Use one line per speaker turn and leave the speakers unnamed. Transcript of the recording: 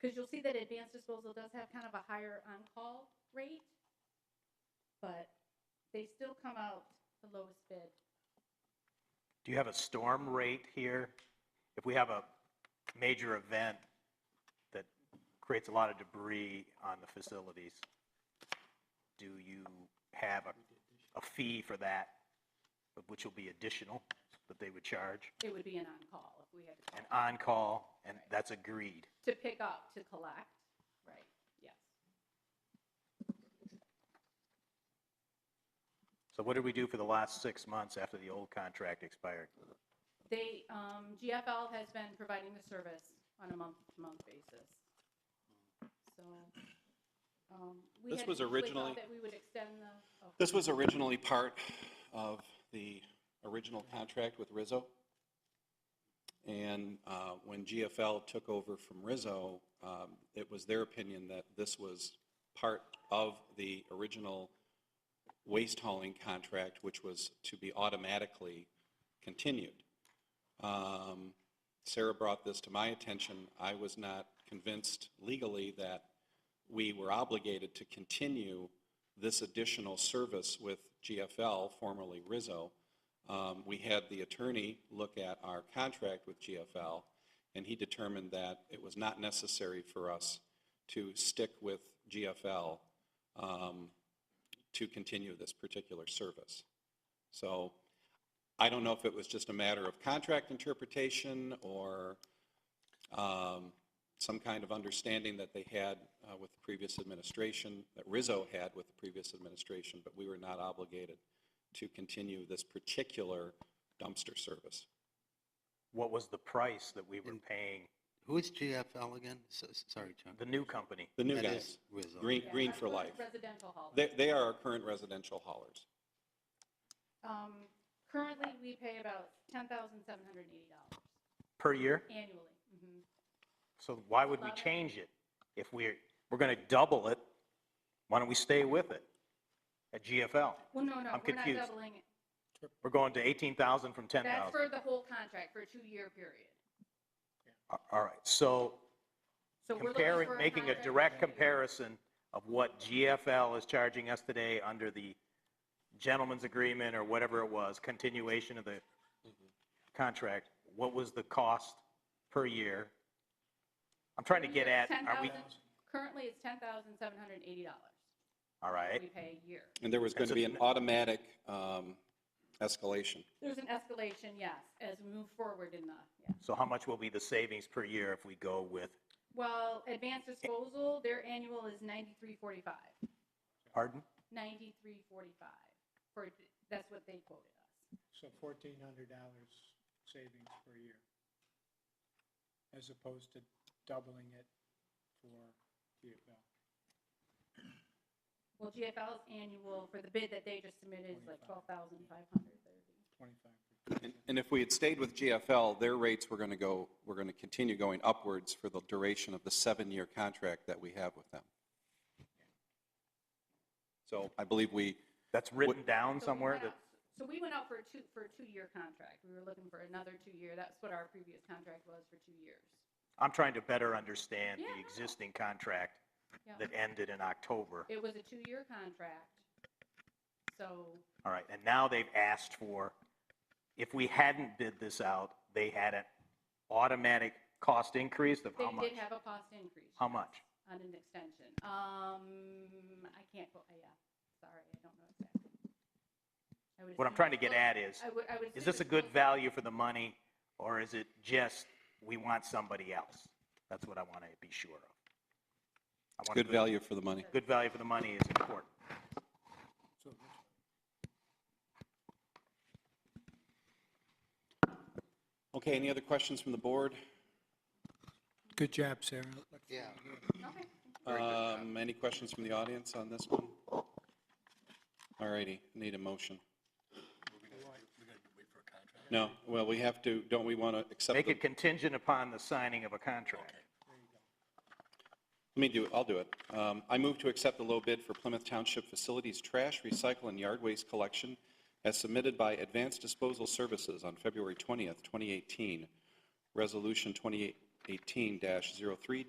Because you'll see that advanced disposal does have kind of a higher on-call rate, but they still come out the lowest bid.
Do you have a storm rate here? If we have a major event that creates a lot of debris on the facilities, do you have a, a fee for that, which will be additional, that they would charge?
It would be an on-call if we had to
An
call
on-call, and that's agreed.
to pick up, to collect. Right. Yes.
So what did we do for the last six months after the old contract expired?
They, um, GFL has been providing the service on a month-to-month basis. So, um, we
This
had
was
initially
originally-
thought that we would extend the. oh,
This was originally part of the original contract with Rizzo. And uh, when GFL took over from Rizzo, um, it was their opinion that this was part of the original waste hauling contract, which was to be automatically continued. Um, Sarah brought this to my attention. I was not convinced legally that we were obligated to continue this additional service with GFL, formerly Rizzo. Um, We had the attorney look at our contract with GFL, and he determined that it was not necessary for us to stick with GFL um, to continue this particular service. So I don't know if it was just a matter of contract interpretation or um, some kind of understanding that they had uh, with the previous administration, that Rizzo had with the previous administration, but we were not obligated to continue this particular dumpster service.
What was the price that we were paying
Who is GFL again? So- s- Sorry, Chuck.
the new company?
The new
That
guys,
is Rizzo.
Green,
yeah,
Green
that's
for
what
Life.
Residential hall.
They, they are our current residential haulers.
Um, currently, we pay about ten thousand seven hundred eighty dollars
Per year?
annually. Mhm.
So why would we
Eleven.
change it? If we're, we're going to double it, why don't we stay with it at GFL?
Well, no, no,
I'm
we're not
confused.
doubling it.
We're going to 18,000 from
That's
10,000.
for the whole contract, for a two-year period.
A- All right, so
So we're looking
comparing,
for
making a
contract
direct
that we-
comparison of what GFL is charging us today under the gentleman's agreement or whatever it was, continuation of the contract, what was the cost per year? I'm trying to get at, are we,
10,000 Currently, it's ten thousand seven hundred eighty dollars
all
we
right,
pay a year.
And there was going
That's a-
to be an automatic um, escalation.
There's an escalation, yes, as we move forward in the, yeah.
so how much will be the savings per year if we go with,
Well, advanced disposal, their annual is ninety-three forty-five,
pardon?
ninety-three forty-five, for, that's what they quoted us.
So fourteen hundred dollars savings per year. As opposed to doubling it for GFL.
Well, GFL's annual for the bid that they just submitted is like twelve thousand five hundred thirty.
twenty-five.
And- And if we had stayed with GFL, their rates were going to go, were going to continue going upwards for the duration of the seven-year contract that we have with them. So I believe we,
That's written down somewhere that,
So we went out for a two, for a two-year contract. We were looking for another two-year. That's what our previous contract was for two years.
I'm trying to better understand
Yeah,
the
no.
existing contract
Yeah.
that ended in October.
It was a two-year contract, so
All right, and now they've asked for, if we hadn't bid this out, they had an automatic cost increase of how
they
much?
did have a cost increase.
How
yes,
much?
On an extension. Um, I can't, go- yeah, sorry, I don't know exactly. I would
What I'm
assume
trying to
it's
get
close-
at is,
I would, I would.
is
assume
this a
it's
good
close-
value for the money, or is it just, we want somebody else? That's what I want to be sure of. I want a
good value for the money.
Good value for the money is important.
Okay, any other questions from the board?
Good job, Sarah.
Yeah.
Okay.
Um, Any questions from the audience on this one? All righty, need a motion. No, well, we have to, don't we want to accept?
Make
the-
it contingent upon the signing of a contract.
Let me do it, I'll do it. Um, I move to accept the low bid for Plymouth Township Facilities Trash, Recycle, and Yard Waste Collection as submitted by Advanced Disposal Services on February 20th, 2018, Resolution 2018-03-.